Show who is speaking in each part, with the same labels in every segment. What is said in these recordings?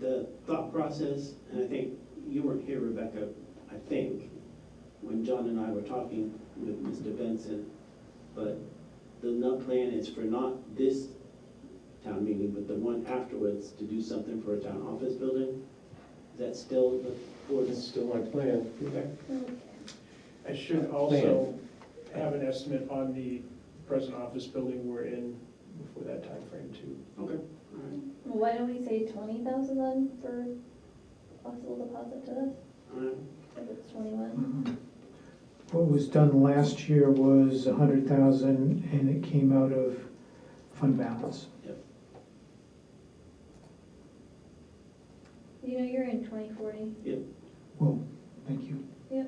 Speaker 1: the thought process, and I think you weren't here, Rebecca, I think, when John and I were talking with Mr. Benson, but the nut plan is for not this town meeting, but the one afterwards to do something for a town office building. Is that still the
Speaker 2: It's
Speaker 1: board's?
Speaker 2: still my plan.
Speaker 3: I should also have an estimate on the present office building we're in before that time frame too.
Speaker 1: Okay, all right,
Speaker 4: Well, Why don't we say twenty thousand then for possible deposit to us,
Speaker 1: all right.
Speaker 4: if it's twenty-one?
Speaker 5: What was done last year was a hundred thousand, and it came out of fund balance.
Speaker 4: You know, you're in twenty forty.
Speaker 5: Well, thank you.
Speaker 2: Yeah,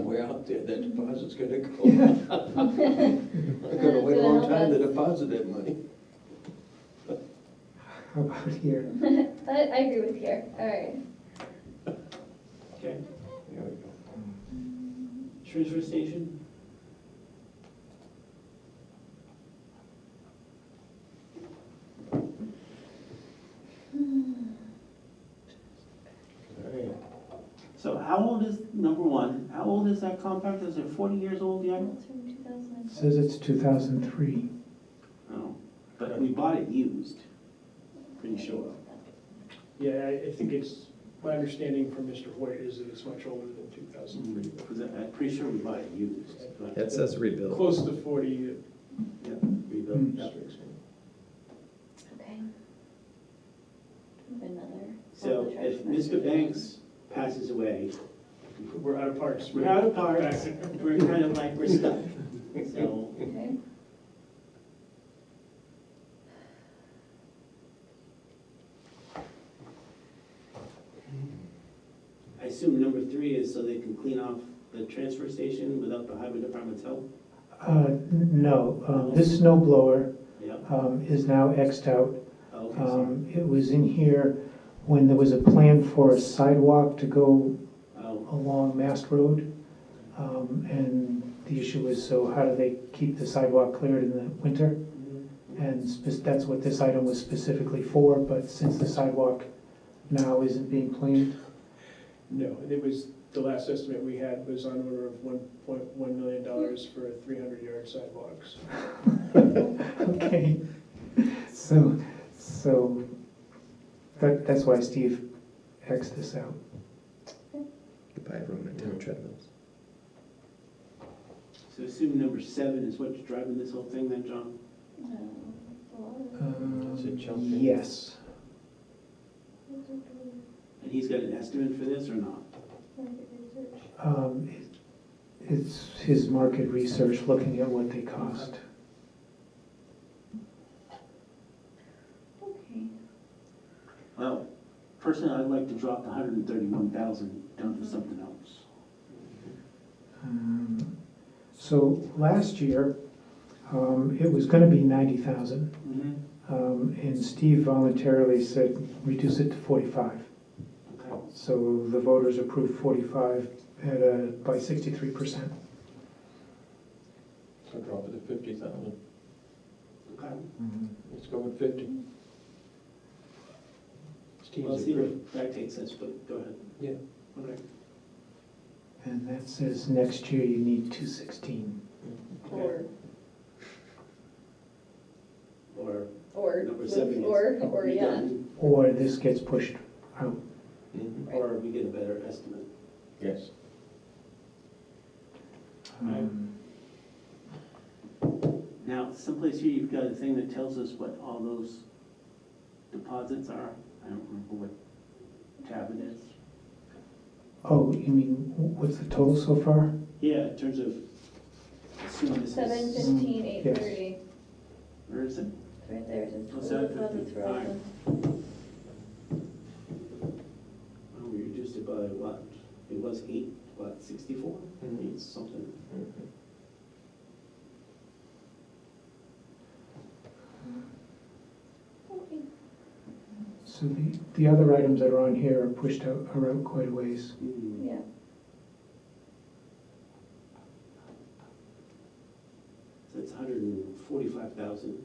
Speaker 2: way out there, that deposit's gonna go. I'm gonna wait a long time to deposit that money.
Speaker 5: How about here?
Speaker 4: I, I agree with here, all right.
Speaker 1: Okay,
Speaker 2: There we go.
Speaker 1: transfer station?
Speaker 2: All right.
Speaker 1: So how old is, number one, how old is that compact? Is it forty years old yet?
Speaker 4: It's from two thousand and
Speaker 5: Says it's two thousand three.
Speaker 1: No, but we bought it used, pretty sure.
Speaker 3: Yeah, I, I think it's, my understanding from Mr. Hoyt is that it's much older than two thousand three.
Speaker 1: Because I- I'm pretty sure we bought it used, but
Speaker 6: It Mm-hmm. says rebuild.
Speaker 3: Close to forty, uh,
Speaker 1: yeah, rebuilt.
Speaker 5: Mm.
Speaker 1: Yep.
Speaker 3: districts.
Speaker 4: Okay. Another.
Speaker 1: So if Mr. Banks passes away,
Speaker 3: we're out of parks.
Speaker 1: we're out of parks, we're kind of like, we're stuck. So,
Speaker 4: Okay.
Speaker 1: I assume number three is so they can clean off the transfer station without the highway department's help?
Speaker 5: Uh, n- no, um, this snow blower,
Speaker 1: Yeah,
Speaker 5: um, is now Xed out.
Speaker 1: oh, okay, sorry.
Speaker 5: Um, it was in here when there was a plan for a sidewalk to go
Speaker 1: Oh,
Speaker 5: along Mast Road. Um, and the issue was, so how do they keep the sidewalk cleared in the winter? And spe- that's what this item was specifically for, but since the sidewalk now isn't being planned,
Speaker 3: No, and it was, the last estimate we had was on order of one point one million dollars for three hundred yard sidewalks.
Speaker 5: okay. So, so, that, that's why Steve Xed this out.
Speaker 6: Goodbye, everyone at town treadmills.
Speaker 1: so assume number seven is what's driving this whole thing then, John?
Speaker 4: Um, a lot of-
Speaker 5: Um,
Speaker 2: Is it jumping?
Speaker 5: Yes.
Speaker 1: And he's got an estimate for this or not?
Speaker 5: Um, it- It's his market research, looking at what they cost.
Speaker 4: Okay.
Speaker 1: Well, personally, I'd like to drop the hundred and thirty-one thousand down to something else.
Speaker 5: Um, So last year, um, it was gonna be ninety thousand.
Speaker 1: Mm-hmm.
Speaker 5: Um, And Steve voluntarily said, reduce it to 45.
Speaker 1: Okay.
Speaker 5: So the voters approved 45 at a, by 63%.
Speaker 2: So drop it to fifty thousand.
Speaker 1: Okay.
Speaker 2: Let's go with fifty.
Speaker 1: Well,
Speaker 2: Steve's
Speaker 1: see
Speaker 2: agree.
Speaker 1: what that takes us, but go ahead.
Speaker 2: Yeah.
Speaker 1: Okay.
Speaker 5: And that says next year you need 216.
Speaker 4: Or,
Speaker 1: Or
Speaker 4: or,
Speaker 1: number seven is.
Speaker 4: or, or, yeah.
Speaker 1: redone,
Speaker 5: Or this gets pushed out.
Speaker 2: Mhm.
Speaker 1: Or we get a better estimate.
Speaker 2: Yes.
Speaker 5: Um,
Speaker 1: Now, someplace here, you've got a thing that tells us what all those deposits are. I don't remember what tab it is.
Speaker 5: Oh, you mean, wh- what's the total so far?
Speaker 1: Yeah, in terms of, assume this
Speaker 4: Seven
Speaker 1: is,
Speaker 4: fifteen, eight thirty.
Speaker 1: where is it?
Speaker 4: Right there, it says
Speaker 1: What's
Speaker 4: total
Speaker 1: that?
Speaker 4: deposits for all of them.
Speaker 1: Oh, We reduced it by what? It was eight, what, sixty-four?
Speaker 2: Mhm.
Speaker 1: Eight something.
Speaker 2: Mhm.
Speaker 4: Okay.
Speaker 5: So the, the other items that are on here are pushed out, are out quite a ways.
Speaker 1: Hmm.
Speaker 4: Yeah.
Speaker 1: So it's hundred and forty-five thousand.